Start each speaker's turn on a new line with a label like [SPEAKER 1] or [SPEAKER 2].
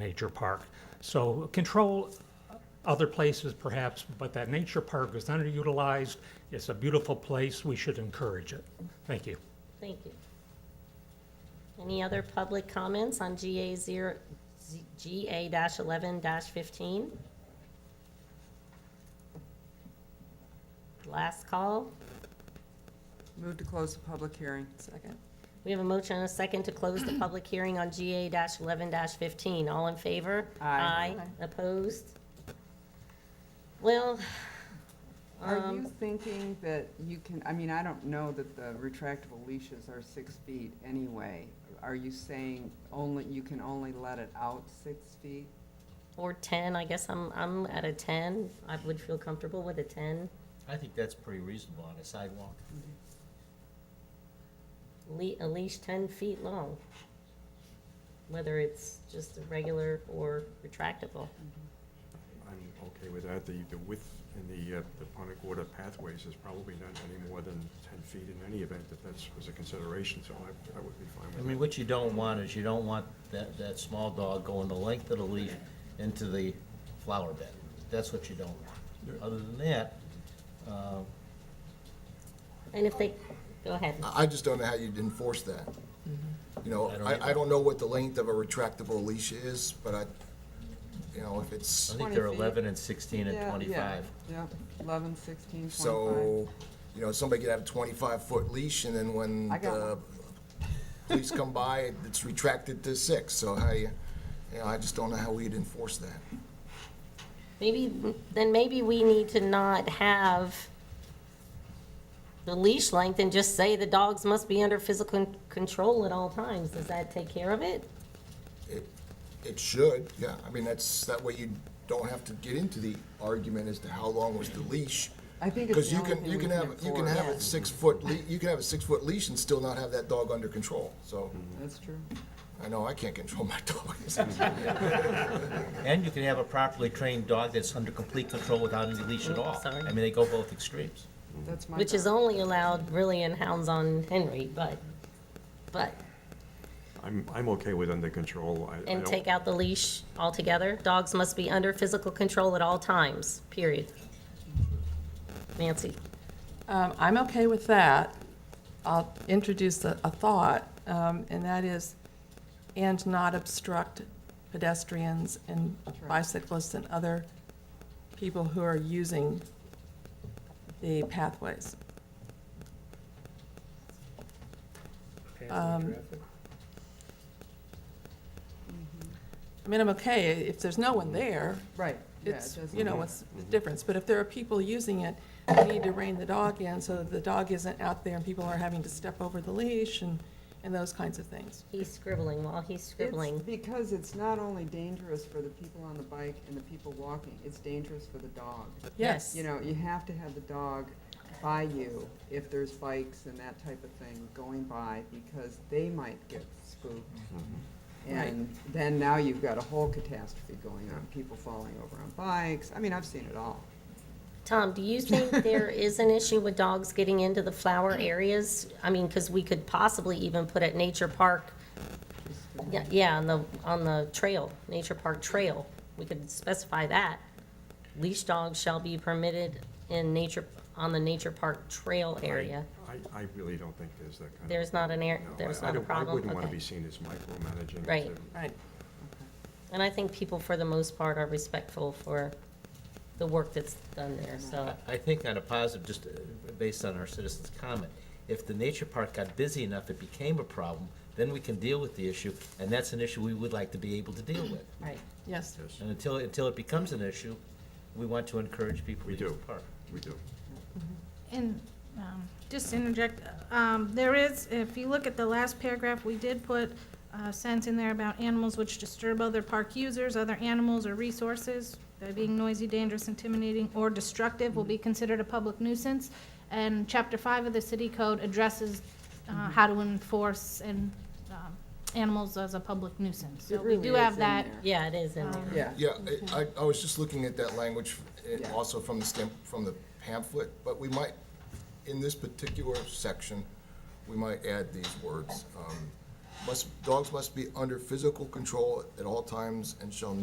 [SPEAKER 1] nature park. So control other places perhaps, but that nature park is underutilized. It's a beautiful place. We should encourage it. Thank you.
[SPEAKER 2] Thank you. Any other public comments on GA zero, Z- GA dash eleven dash fifteen? Last call.
[SPEAKER 3] Move to close the public hearing. Second.
[SPEAKER 2] We have a motion and a second to close the public hearing on GA dash eleven dash fifteen. All in favor?
[SPEAKER 3] Aye.
[SPEAKER 2] Opposed? Well,
[SPEAKER 3] Are you thinking that you can, I mean, I don't know that the retractable leashes are six feet anyway. Are you saying only, you can only let it out six feet?
[SPEAKER 2] or ten, I guess I'm, I'm at a ten. I would feel comfortable with a ten.
[SPEAKER 4] I think that's pretty reasonable on a sidewalk.
[SPEAKER 2] le- at least ten feet long. Whether it's just a regular or retractable.
[SPEAKER 5] I'm okay with that. The, the width in the, uh, the Punta Gorda pathways is probably not any more than ten feet in any event, if that's, was a consideration, so I, I would be
[SPEAKER 4] I
[SPEAKER 5] fine with
[SPEAKER 4] mean,
[SPEAKER 5] it.
[SPEAKER 4] what you don't want is you don't want that, that small dog going the length of the leash into the flower bed. That's what you don't want. Other than that, uh,
[SPEAKER 2] And if they, go ahead,
[SPEAKER 6] I I just don't know how you'd enforce that. You know,
[SPEAKER 4] Mm-hmm. I don't either.
[SPEAKER 6] I, I don't know what the length of a retractable leash is, but I, you know, if
[SPEAKER 4] I
[SPEAKER 6] it's,
[SPEAKER 4] think
[SPEAKER 3] 20
[SPEAKER 4] they're
[SPEAKER 3] feet.
[SPEAKER 4] eleven and sixteen and
[SPEAKER 3] Yeah, yeah,
[SPEAKER 4] twenty-five.
[SPEAKER 3] Yep, eleven, sixteen, twenty-five.
[SPEAKER 6] so, you know, somebody could have a twenty-five foot leash and then when
[SPEAKER 3] I got
[SPEAKER 6] the police come by, it's retracted to six, so how you, you know, I just don't know how we'd enforce that.
[SPEAKER 2] maybe, then maybe we need to not have the leash length and just say the dogs must be under physical con- control at all times. Does that take care of it?
[SPEAKER 6] It, it should, yeah, I mean, that's, that way you don't have to get into the argument as to how long was the leash.
[SPEAKER 3] I think it's
[SPEAKER 6] Because
[SPEAKER 3] the
[SPEAKER 6] you
[SPEAKER 3] only
[SPEAKER 6] can,
[SPEAKER 3] thing
[SPEAKER 6] you
[SPEAKER 3] we
[SPEAKER 6] can
[SPEAKER 3] can
[SPEAKER 6] have, you can have a
[SPEAKER 3] enforce.
[SPEAKER 6] six-foot, le- you can have a six-foot leash and still not have that dog under control. So,
[SPEAKER 3] That's true.
[SPEAKER 6] I know I can't control my dog.
[SPEAKER 4] And you can have a properly trained dog that's under complete control without any leash at all.
[SPEAKER 2] Sorry.
[SPEAKER 4] I mean, they go both extremes.
[SPEAKER 3] That's my.
[SPEAKER 2] Which is
[SPEAKER 3] thought.
[SPEAKER 2] only allowed really in hounds on Henry, but, but,
[SPEAKER 5] I'm, I'm okay with under control. I- I
[SPEAKER 2] and
[SPEAKER 5] don't-
[SPEAKER 2] take out the leash altogether. Dogs must be under physical control at all times, period. Nancy?
[SPEAKER 7] Um, I'm okay with that. I'll introduce a, a thought, um, and that is, and not obstruct pedestrians and bicyclists and other people who are using the pathways. Um, I mean, I'm okay, if there's no one there,
[SPEAKER 3] Right, yeah, it
[SPEAKER 7] it's,
[SPEAKER 3] doesn't.
[SPEAKER 7] you know, what's the difference? But if there are people using it, we need to rein the dog in so that the dog isn't out there and people are having to step over the leash and, and those kinds of things.
[SPEAKER 2] He's scribbling while he's
[SPEAKER 3] It's
[SPEAKER 2] scribbling.
[SPEAKER 3] because it's not only dangerous for the people on the bike and the people walking, it's dangerous for the dog.
[SPEAKER 7] Yes.
[SPEAKER 3] You know, you have to have the dog by you if there's bikes and that type of thing going by, because they might get spooked. And then now you've got a whole catastrophe going on, people falling over on bikes, I mean, I've seen it all.
[SPEAKER 2] Tom, do you think there is an issue with dogs getting into the flower areas? I mean, because we could possibly even put at Nature Park, yeah, yeah, on the, on the trail, Nature Park Trail. We could specify that. Leash dogs shall be permitted in nature, on the Nature Park Trail area.
[SPEAKER 5] I, I really don't think there's that kind of.
[SPEAKER 2] There's not an air,
[SPEAKER 5] no, I-
[SPEAKER 2] there's
[SPEAKER 5] I
[SPEAKER 2] not a
[SPEAKER 5] don't- I
[SPEAKER 2] problem?
[SPEAKER 5] wouldn't want to
[SPEAKER 2] Okay.
[SPEAKER 5] be seen as micromanaging.
[SPEAKER 2] Right.
[SPEAKER 5] to-
[SPEAKER 7] Right.
[SPEAKER 2] And I think people, for the most part, are respectful for the work that's done there, so.
[SPEAKER 4] I think on a positive, just uh, based on our citizens' comment, if the nature park got busy enough, it became a problem, then we can deal with the issue, and that's an issue we would like to be able to deal with.
[SPEAKER 2] Right.
[SPEAKER 7] Yes.
[SPEAKER 4] And until, until it becomes an issue, we want to encourage people to
[SPEAKER 5] We
[SPEAKER 4] use
[SPEAKER 5] do.
[SPEAKER 4] the park.
[SPEAKER 5] We do.
[SPEAKER 8] And, um, just to interject, um, there is, if you look at the last paragraph, we did put a sentence in there about animals which disturb other park users, other animals or resources, by being noisy, dangerous, intimidating, or destructive will be
[SPEAKER 3] Mm-hmm.
[SPEAKER 8] considered a public nuisance. And chapter five of the city code addresses,
[SPEAKER 3] Mm-hmm.
[SPEAKER 8] uh, how to enforce and, um, animals as a public nuisance. So
[SPEAKER 3] It
[SPEAKER 8] we
[SPEAKER 3] really
[SPEAKER 8] do
[SPEAKER 3] is
[SPEAKER 8] have
[SPEAKER 3] in
[SPEAKER 8] that.
[SPEAKER 3] there.
[SPEAKER 2] Yeah, it is in there.
[SPEAKER 3] Yeah,
[SPEAKER 6] Yeah, I, I was just looking at that language eh,
[SPEAKER 3] Yeah.
[SPEAKER 6] also from the stem, from the pamphlet, but we might, in this particular section, we might add these words. um, must, dogs must be under physical control at all times and shall